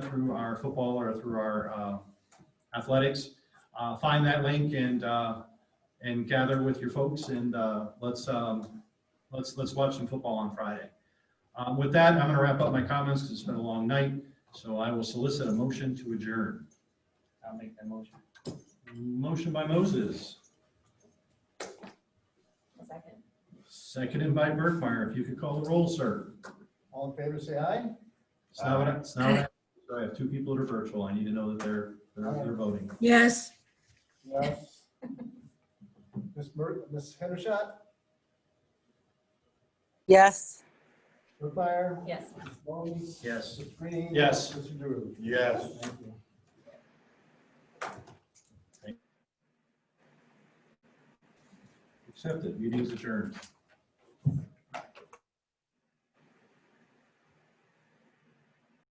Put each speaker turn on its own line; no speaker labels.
through our football or through our uh, athletics. Uh, Find that link and, uh, and gather with your folks and uh, let's, um, let's, let's watch some football on Friday. Um, With that, I'm going to wrap up my comments because it's been a long night. So I will solicit a motion to adjourn.
I'll make that motion.
Motion by Moses,
A second.
seconded by Burkmeyer. If you could call the roll, sir.
All in favor, say aye.
It's not what I, it's not what I, so I have two people that are virtual. I need to know that they're, they're they're voting.
Yes.
Yes. Ms. Mur, Ms. Hendershot,
Yes.
Brookmeyer,
Yes.
Ms. Moe,
Yes.
Ms. Green.
Yes.
Mr. Drew.
Yes.
Thank you.
Accepted. Meeting's adjourned.